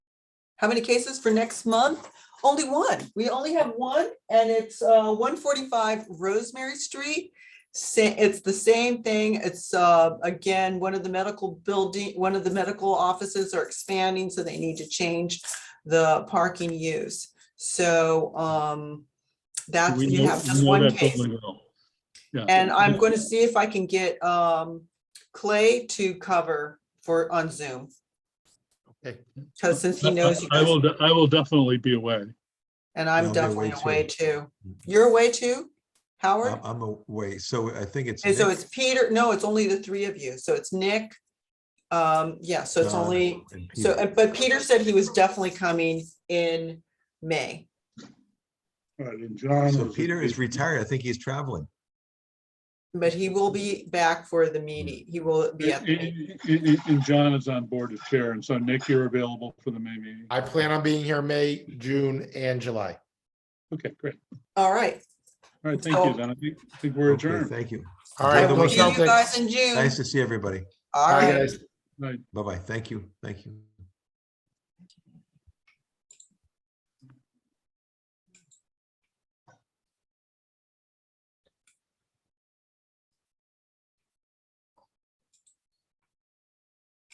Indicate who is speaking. Speaker 1: How many cases for next month? Only one. We only have one and it's uh one forty-five Rosemary Street. Sa- it's the same thing. It's uh again, one of the medical building, one of the medical offices are expanding, so they need to change the parking use. So um that's,
Speaker 2: We
Speaker 1: you
Speaker 2: know-
Speaker 1: have
Speaker 2: we
Speaker 1: just
Speaker 2: know
Speaker 1: one
Speaker 2: that
Speaker 1: case.
Speaker 2: building well. Yeah.
Speaker 1: And I'm going to see if I can get um Clay to cover for on Zoom,
Speaker 3: Okay,
Speaker 1: because since he knows you
Speaker 2: I I
Speaker 1: guys,
Speaker 2: will, de- I will definitely be away.
Speaker 1: and I'm
Speaker 3: I'll be
Speaker 1: definitely
Speaker 3: away
Speaker 1: away too. You're away too, Howard?
Speaker 3: I- I'm away, so I think it's.
Speaker 1: And so
Speaker 3: Uh, Nick,
Speaker 1: it's Peter, no, it's only the three of you, so it's Nick. Um, yeah, so it's
Speaker 3: Donna,
Speaker 1: only,
Speaker 3: and Peter.
Speaker 1: so, and- but Peter said he was definitely coming in May.
Speaker 2: All right, and John.
Speaker 3: So
Speaker 2: was-
Speaker 3: Peter is retired. I think he's traveling.
Speaker 1: But he will be back for the meeting, he will be at
Speaker 2: And,
Speaker 1: the meeting.
Speaker 2: and- and- and John is on board as chair, and so Nick, you're available for the May meeting.
Speaker 3: I plan on being here May, June, and July.
Speaker 2: Okay, great.
Speaker 1: All right,
Speaker 2: All right, thank you,
Speaker 1: So-
Speaker 2: then. I think, I think we're
Speaker 3: Okay,
Speaker 2: adjourned.
Speaker 3: Thank you.
Speaker 1: I
Speaker 3: All right,
Speaker 1: will
Speaker 3: go
Speaker 1: see you
Speaker 3: Celtics.
Speaker 1: guys in June.
Speaker 3: Nice to see everybody.
Speaker 1: All
Speaker 3: Bye,
Speaker 1: right.
Speaker 3: guys.
Speaker 2: Right.
Speaker 3: Bye-bye. Thank you. Thank you.